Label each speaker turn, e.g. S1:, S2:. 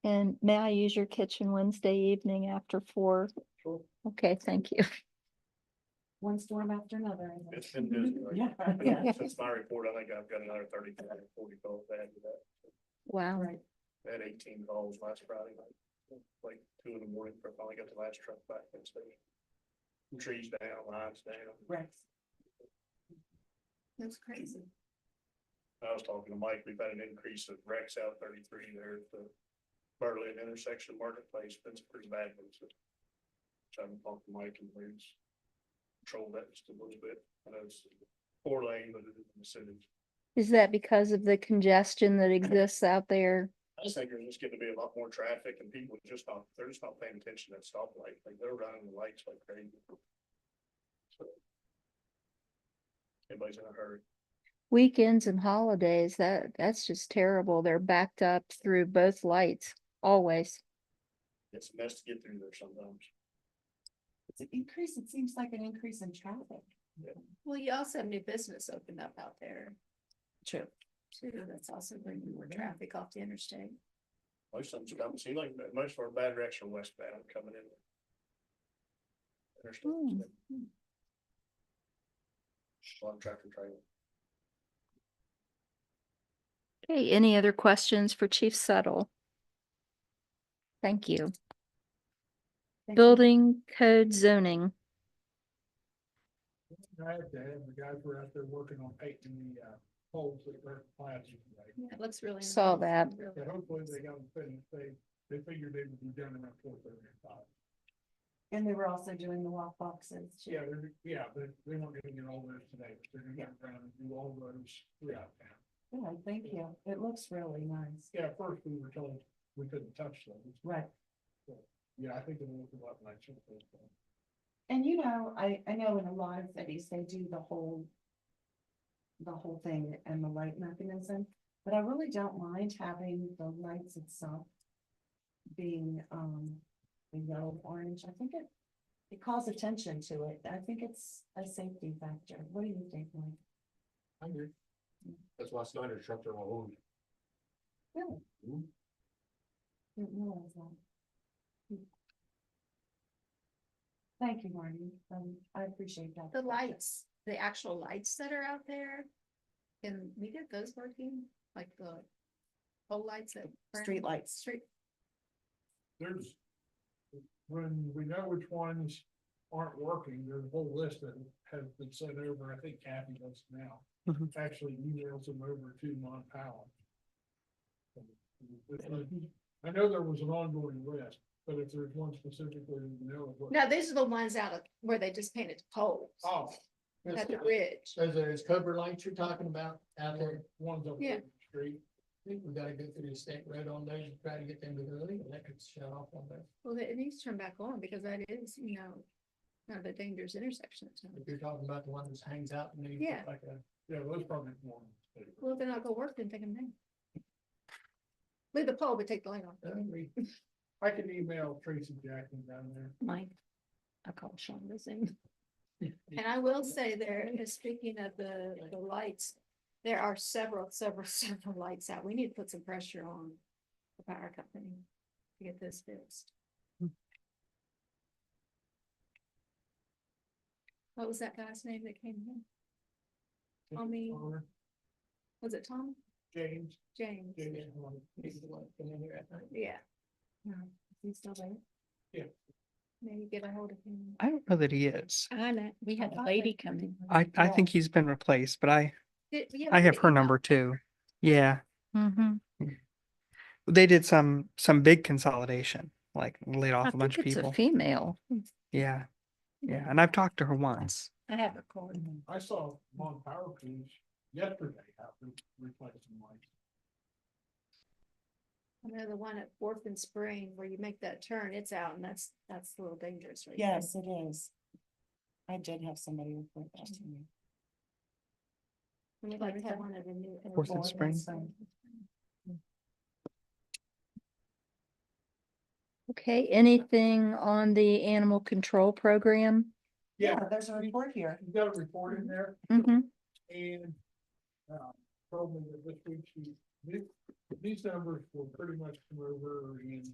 S1: And may I use your kitchen Wednesday evening after four?
S2: Sure.
S1: Okay, thank you.
S3: One storm after another. I
S2: It's been
S3: think.
S2: busy. right?
S3: Yeah, yeah.
S2: Since my report, I think I've got another thirty, forty calls back to that.
S1: Wow.
S3: Right.
S2: Had eighteen calls last Friday night, like two in the morning, I finally got the last truck back and station. Trees down, lines down.
S3: Right. That's crazy.
S2: I was talking to Mike, we've had an increase of wrecks out thirty-three there at the Berlin intersection marketplace, been some pretty bad ones. So I'm talking to Mike and Liz. Control that just a little bit, I know it's four lane, but it is in the city.
S1: Is that because of the congestion that exists out there?
S2: I just think there's just getting to be a lot more traffic and people are just not, they're just not paying attention to that stoplight, like they're running the lights like crazy. So, Everybody's in a hurry.
S1: Weekends and holidays, that, that's just terrible. They're backed up through both lights, always.
S2: It's a mess to get through there sometimes.
S3: It's an increase, it seems like an increase in traffic.
S4: Well, you also have new business opened up out there
S3: True.
S4: too. That's also bringing more traffic off the interstate.
S2: Most of them don't seem like, that. most of our bad wrecks are westbound coming in.
S3: Hmm.
S2: Interstate. A lot of tractor trailer.
S1: Okay, any other questions for Chief Settle? Thank you.
S3: Thank you.
S1: Building code zoning.
S5: I had to have the guys were out there working on painting the uh, holes that were planted. today.
S4: It looks really.
S1: Saw
S4: nice.
S1: that.
S4: Really
S5: And hopefully they got them finished. They, they figured they would be done around four thirty or five.
S3: And they were also doing the walk boxes. too.
S5: Yeah, they're, yeah, but they weren't gonna get all those today. but They're gonna go around and do all those throughout town.
S3: Yeah, thank you. It looks really nice.
S5: Yeah, at first we were told we couldn't touch those.
S3: Right.
S5: Yeah, I think it'll look a lot nicer.
S3: And you know, I, I know in a lot of cities, they do the whole. The whole thing and the light mechanism, but I really don't mind having the lights itself. Being, um, the yellow, orange, I think it, it calls attention to it. I think it's a safety factor. What do you think, Mike?
S5: I agree. That's why Snyder trucks are all over.
S3: Really?
S5: Mhm.
S3: Didn't realize that. Hmm. Thank you, Marty. Um, I appreciate that.
S4: The lights, the actual lights that are out there. Can we get those working? Like the pole lights at. Brown-
S3: Street lights.
S4: Street,
S5: there's, when we know which ones aren't working, there's a whole list that has been sent over, I think Kathy does now.
S3: Mhm.
S5: Actually emails them over to Mon Powell. I know there was an ongoing list, but if there's one specifically, you know. what-
S4: no, these are the ones out of where they just painted poles
S5: Oh.
S4: at the bridge.
S5: Those are those Cobra lights you're talking about out there? Ones up
S4: Yeah.
S5: the street. I think we gotta go through the state road on those and try to get them to really electric shut off on those.
S4: Well, it needs to turn back on because that is, you know, kind of a dangerous intersection. at times.
S5: If you're talking about the one that hangs out and they.
S4: look Yeah.
S5: Yeah, those probably one.
S4: Well, then I'll go work and take them down. Leave the pole, but take the light off.
S5: I can email Tracy Jackson down there.
S4: Mike, I called Sean the same. And I will say there, uh, speaking of the, the lights, there are several, several, several lights out. We need to put some pressure on the power company to get this fixed. What was that guy's name that came in? Tommy,
S5: Or
S4: was it Tom?
S5: James,
S4: James?
S5: James. Horn.
S4: Yeah,
S3: He's still there?
S4: maybe get a hold of him.
S6: I don't know that he is.
S4: I know, we
S3: had a lady come
S4: in.
S6: I, I think he's been replaced, but I, I have her number too. Yeah, Mm.
S1: Mm-hmm.
S6: they did some, some big consolidation, like laid off a bunch of
S1: It's a
S6: people.
S1: female.
S6: Yeah, yeah. And I've talked to her once.
S4: I have a card.
S6: Mm-hmm.
S5: I saw Mon Power Cruise yesterday, out there replacing lights.
S4: I know the one at Fourth and Spring where you make that turn, it's out and that's, that's a little dangerous. right there.
S3: Yes, it is. I did have somebody report that to me.
S4: And We'd like to have one of the new.
S6: Fourth and
S4: airport
S6: Spring.
S4: signs.
S1: Okay, anything on the animal control program?
S3: Yeah, there's a report here.
S5: You got a report in there
S1: Mm-hmm.
S5: and, uh, told me that this week she These, these numbers will pretty much come over in